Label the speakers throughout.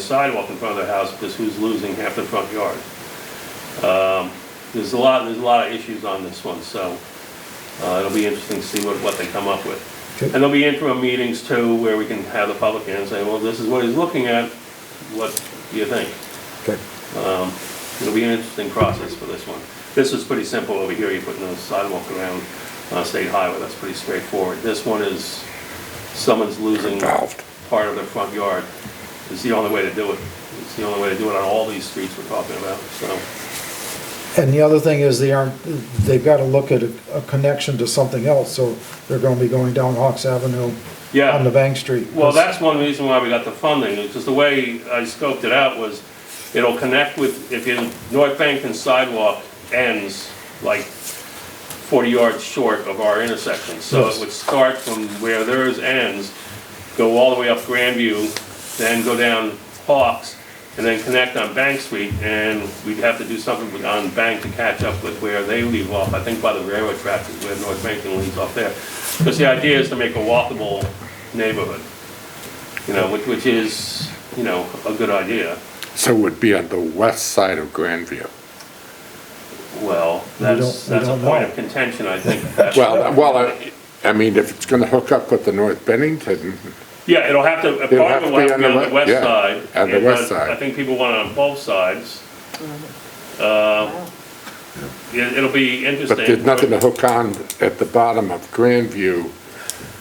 Speaker 1: sidewalk in front of their house because who's losing half the front yard? Um, There's a lot, there's a lot of issues on this one, so uh, it'll be interesting to see what, what they come up with.
Speaker 2: Okay.
Speaker 1: And there'll be interim meetings too, where we can have the public in and say, well, this is what he's looking at, what do you think?
Speaker 2: Okay.
Speaker 1: Um, It'll be an interesting process for this one. This is pretty simple over here, you're putting a sidewalk around uh, State Highway, that's pretty straightforward. This one is, someone's losing
Speaker 3: Involved.
Speaker 1: part of their front yard. It's the only way to do it. It's the only way to do it on all these streets we're talking about, so.
Speaker 2: And the other thing is they aren't, they've got to look at a a connection to something else, so they're going to be going down Hawks Avenue
Speaker 1: Yeah.
Speaker 2: on the Bank Street.
Speaker 1: Well, that's one reason why we got the funding, because the way I scoped it out was, it'll connect with, if your North Bennington sidewalk ends like forty yards short of our intersection, so it would start from where theirs ends, go all the way up Grandview, then go down Hawks, and then connect on Bank Street, and we'd have to do something with- on Bank to catch up with where they leave off, I think by the railroad tracks is where North Bennington leaves off there. Because the idea is to make a walkable neighborhood you know, which, which is, you know, a good idea.
Speaker 3: So it would be on the west side of Grandview.
Speaker 1: Well,
Speaker 2: We
Speaker 1: that's,
Speaker 2: don't- we
Speaker 1: that's a
Speaker 2: don't
Speaker 1: point
Speaker 2: know.
Speaker 1: of contention, I think.
Speaker 3: Well, well, I- I mean, if it's gonna hook up with the North Bennington,
Speaker 1: Yeah, it'll have to, a
Speaker 3: It'll
Speaker 1: part of it will have to be on the west
Speaker 3: yeah,
Speaker 1: side.
Speaker 3: on the
Speaker 1: and,
Speaker 3: west
Speaker 1: uh, I
Speaker 3: side.
Speaker 1: think people want it on both sides. Uh, It, it'll be interesting.
Speaker 3: but there's nothing to hook on at the bottom of Grandview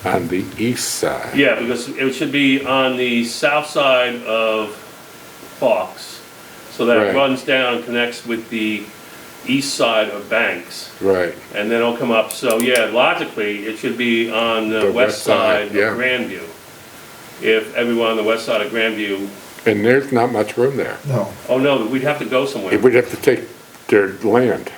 Speaker 3: on the east side.
Speaker 1: Yeah, because it should be on the south side of Fox, so that it
Speaker 3: Right.
Speaker 1: runs down, and connects with the east side of Banks.
Speaker 3: Right,
Speaker 1: and then it'll come up, so yeah, logically, it should be on the west side of
Speaker 3: yeah.
Speaker 1: Grandview. If everyone on the west side of Grandview,
Speaker 3: and there's not much room there.
Speaker 2: No,
Speaker 1: oh no, we'd have to go somewhere.
Speaker 3: It would have to take their land.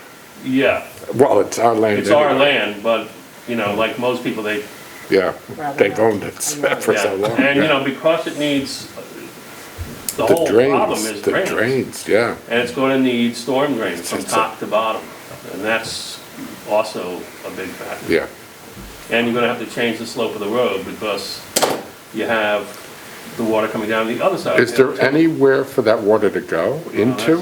Speaker 1: Yeah,
Speaker 3: Well, it's our land.
Speaker 1: it's our
Speaker 3: anyway.
Speaker 1: land, but, you know, like most people, they,
Speaker 3: Yeah, they've owned it for
Speaker 1: yeah.
Speaker 3: so long.
Speaker 1: And, you
Speaker 3: yeah.
Speaker 1: know, because it needs, uh, the
Speaker 3: The
Speaker 1: whole problem is
Speaker 3: drains, the
Speaker 1: drainage.
Speaker 3: drains, yeah.
Speaker 1: And it's gonna need storm drains from
Speaker 3: It's a-
Speaker 1: top to bottom, and that's also a big factor.
Speaker 3: Yeah,
Speaker 1: And you're gonna have to change the slope of the road because you have the water coming down the other side. of
Speaker 3: is
Speaker 1: the
Speaker 3: there
Speaker 1: hill.
Speaker 3: anywhere for that water to go into?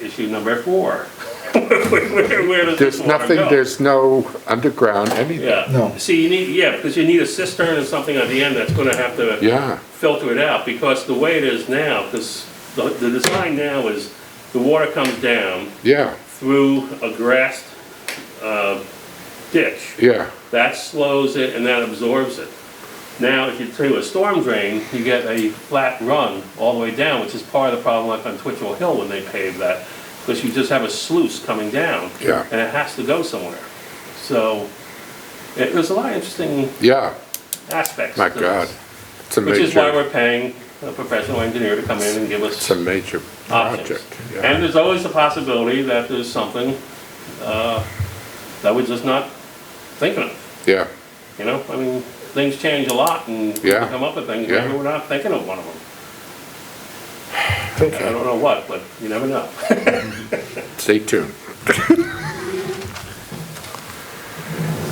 Speaker 1: That's Issue number four. Where- Where where does this
Speaker 3: There's
Speaker 1: water
Speaker 3: nothing,
Speaker 1: go?
Speaker 3: there's no underground, anything,
Speaker 1: Yeah.
Speaker 2: No.
Speaker 1: See, you need, yeah, because you need a cistern or something at the end that's gonna have to
Speaker 3: yeah,
Speaker 1: filter it out, because the way it is now, because the, the design now is the water comes down
Speaker 3: yeah,
Speaker 1: through a grassed, uh, ditch.
Speaker 3: yeah,
Speaker 1: That slows it and that absorbs it. Now, if you do a storm drain, you get a flat run all the way down, which is part of the problem like on Twitchell Hill when they paved that, because you just have a sluice coming down.
Speaker 3: Yeah.
Speaker 1: And it has to go somewhere. So, it, there's a lot of interesting
Speaker 3: yeah,
Speaker 1: aspects.
Speaker 3: my
Speaker 1: to
Speaker 3: God.
Speaker 1: this,
Speaker 3: It's a
Speaker 1: Which is why
Speaker 3: major,
Speaker 1: we're paying a professional engineer to come in and give
Speaker 3: it's
Speaker 1: us
Speaker 3: a major
Speaker 1: options.
Speaker 3: project,
Speaker 1: And
Speaker 3: yeah,
Speaker 1: there's always the possibility that there's something, uh, that we're just not thinking of.
Speaker 3: yeah,
Speaker 1: You know, I mean, things change a lot and we
Speaker 3: Yeah.
Speaker 1: come up with things,
Speaker 3: Yeah.
Speaker 1: maybe we're not thinking of one of them. I
Speaker 2: okay,
Speaker 1: don't know what, but you never know.
Speaker 3: stay tuned.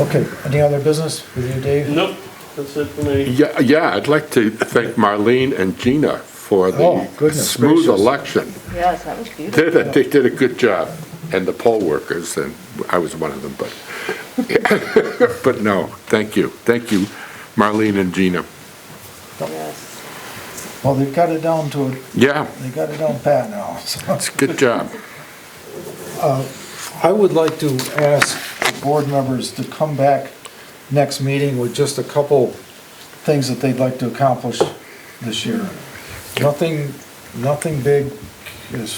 Speaker 2: okay. Any other business with you, Dave?
Speaker 1: Nope, that's it for me.
Speaker 3: Yeah, yeah, I'd like to thank Marlene and Gina for
Speaker 2: Oh,
Speaker 3: the
Speaker 2: goodness
Speaker 3: smooth
Speaker 2: gracious.
Speaker 3: election.
Speaker 4: Yes, that was beautiful.
Speaker 3: They, they did a good job, and the poll workers, and I was one of them, but, but no, thank you, thank you, Marlene and Gina.
Speaker 4: Yes.
Speaker 2: Well, they've got it down to, a-
Speaker 3: Yeah,
Speaker 2: they got it down pat now. so.
Speaker 3: it's a good job.
Speaker 2: I would like to ask the board members to come back next meeting with just a couple things that they'd like to accomplish this year. Nothing, nothing big is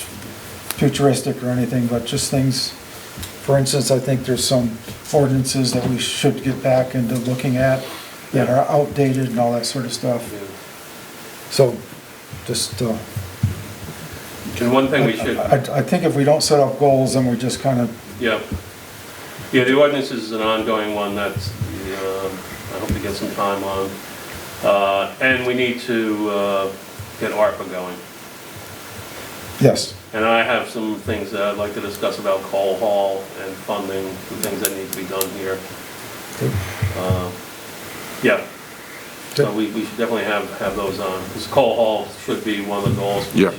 Speaker 2: futuristic or anything, but just things, for instance, I think there's some ordinances that we should get back into looking at that are outdated and all that sort of stuff. So, just, uh,
Speaker 1: And one thing we should,
Speaker 2: I, I think if we don't set up goals, then we're just kind of
Speaker 1: yeah. Yeah, the ordinance is an ongoing one that's, um, I hope we get some time on. Uh, and we need to, uh, get ARPA going.
Speaker 2: Yes,
Speaker 1: And I have some things that I'd like to discuss about Call Hall and funding, the things that need to be done here. Uh, Yeah, So we, we should definitely have, have those on, because Cole Hall should be one of the goals.
Speaker 3: Yeah.